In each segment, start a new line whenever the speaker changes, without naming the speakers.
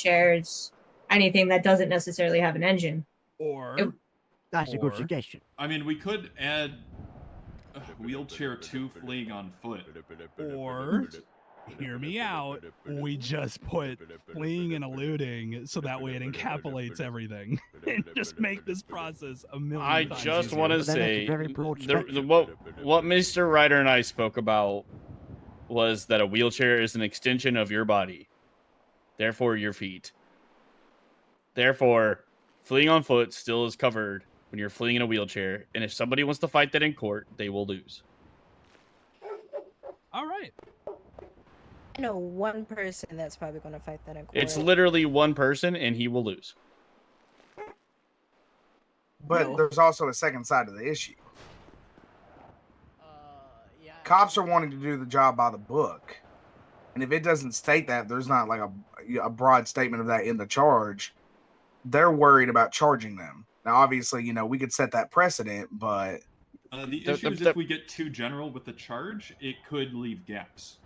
wheelchairs, anything that doesn't necessarily have an engine.
Or
It-
That's a good
Or-
suggestion.
I mean, we could add uh, wheelchair two fleeing on foot.
Or, hear me out, we just put fleeing and eluding so that way it encapsulates everything and just make this process a million
I
times
just
easier.
want to
But then that's a
say
very broad
the, the,
spectrum.
what what Mr. Ryder and I spoke about was that a wheelchair is an extension of your body, therefore your feet. Therefore, fleeing on foot still is covered when you're fleeing in a wheelchair, and if somebody wants to fight that in court, they will lose.
All right.
I know one person that's probably going to fight that in court.
It's literally one person, and he will lose.
But there's also a second side to the issue.
Uh, yeah.
Cops are wanting to do the job by the book, and if it doesn't state that, there's not like a a broad statement of that in the charge. They're worried about charging them. Now, obviously, you know we could set that precedent, but
Uh, the
The-
issue
the-
is
the-
if we get too general with the charge, it could leave gaps.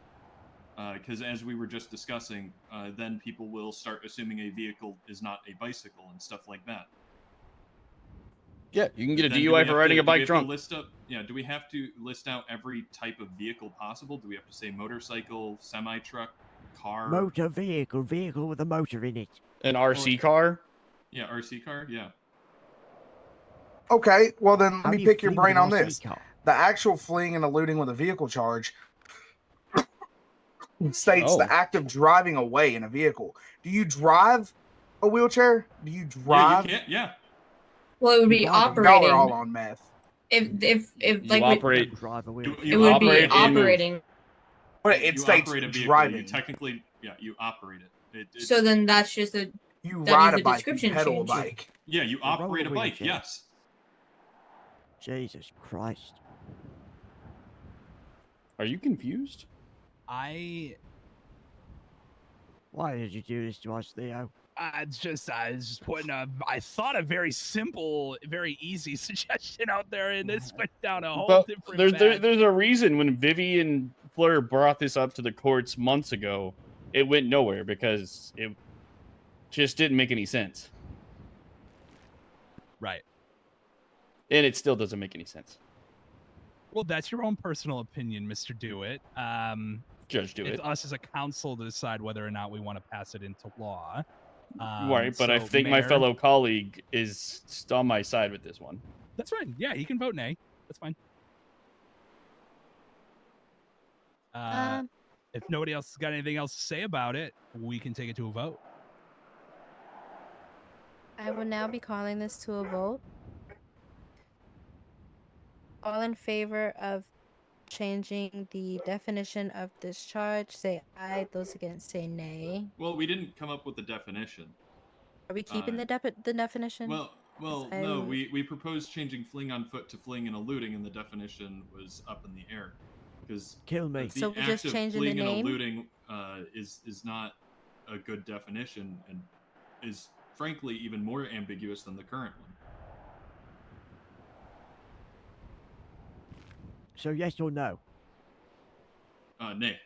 Because as we were just discussing, uh, then people will start assuming a vehicle is not a bicycle and stuff like that.
Yeah, you can get a
Then do we
DUI
have
for riding
to-
a
do we
bike
have to
drunk.
List up, yeah. Do we have to list out every type of vehicle possible? Do we have to say motorcycle, semi truck, car?
Motor vehicle, vehicle with a motor in it.
An RC car.
yeah, RC car. Yeah.
okay. Well, then
How
let
do
me
you
pick your
flee with
brain
an
on
RC
this.
car?
the actual fleeing and eluding with a vehicle charge states
Oh.
the act of driving away in a vehicle. Do you drive a wheelchair? Do you
Yeah,
drive?
you can't, yeah.
Well, it would be
Y'all are all
operating.
on meth.
If if if
You
like we-
operate- Great.
Drive a
You,
wheel.
it
you
would
operate
be
and move.
operating.
But it
you
states
operate a vehicle. You
driving. You,
technically, yeah, you operate it. it it's-
So then that's just a that
ride
needs a
a bike. You
description
pedal
change.
a bike.
yeah, you
roll
operate a
away,
bike.
Jay.
Yes.
Jesus Christ.
Are you confused?
I,
Why did you do this to us, Theo?
I just, I was just putting a, I thought a very simple, very easy suggestion out there, and this went down a whole
But
different.
there's there,
path.
there's a reason when Vivian Fleur brought this up to the courts months ago, it went nowhere because it just didn't make any sense,
right.
and it still doesn't make any sense.
Well, that's your own personal opinion, Mister Do It. Um,
Judge, do
it's
it.
us as a council to decide whether or not we want to pass it into law. Um,
right, but I
so,
think my
Mayor-
fellow colleague is st- on my side with this one.
That's fine. Yeah, he can vote nay. That's fine. Uh,
Um,
if nobody else has got anything else to say about it, we can take it to a vote.
I will now be calling this to a vote.
All in favor of changing the definition of discharge, say aye. Those against, say nay.
Well, we didn't come up with a definition.
Are we keeping
Aye.
the, defi- the definition?
Well, well,
I
no,
would-
we, we proposed changing fling on foot to fling and eluding, and the definition was up in the air. Because
Kill me.
the
So we're
act
just
of
changing the
fleeing and
name?
eluding uh, is, is not a good definition and is frankly even more ambiguous than the current one.
So yes or no?
Uh, nay.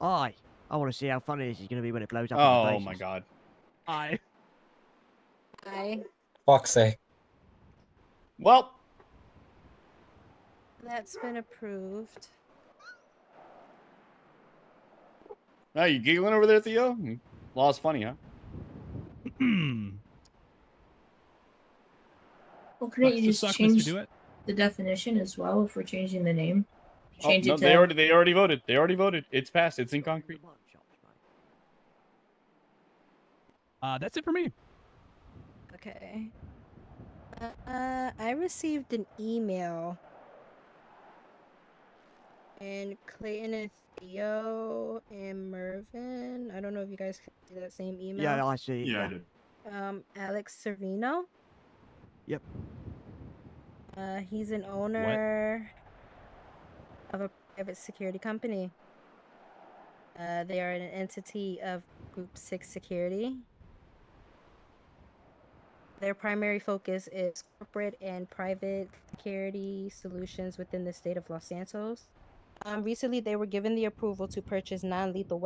Aye. I want to see how funny this is going to be when it blows up. in our
Oh my
faces.
god.
I
Aye.
Fuck's sake.
Well,
That's been approved.
now you giggling over there, Theo? Hmm, Law's funny, huh?
Well, couldn't you just
suck,
change
Mr. Do It.
the definition as well if we're changing the name?
Oh,
Change
no,
it
they
to
already they already voted. They already voted. It's passed. It's in concrete.
Uh, that's it for me.
Okay. Uh, I received an email. And Clayton and Theo and Mervin. I don't know if you guys can see that same email.
Yeah, I see.
Yeah, I
Yeah.
did.
Um, Alex Servino.
Yep.
Uh, he's an owner of a private security company. Uh, they are an entity of Group 6 Security. Their primary focus is corporate and private security solutions within the state of Los Santos. Um, recently, they were given the approval to purchase non lethal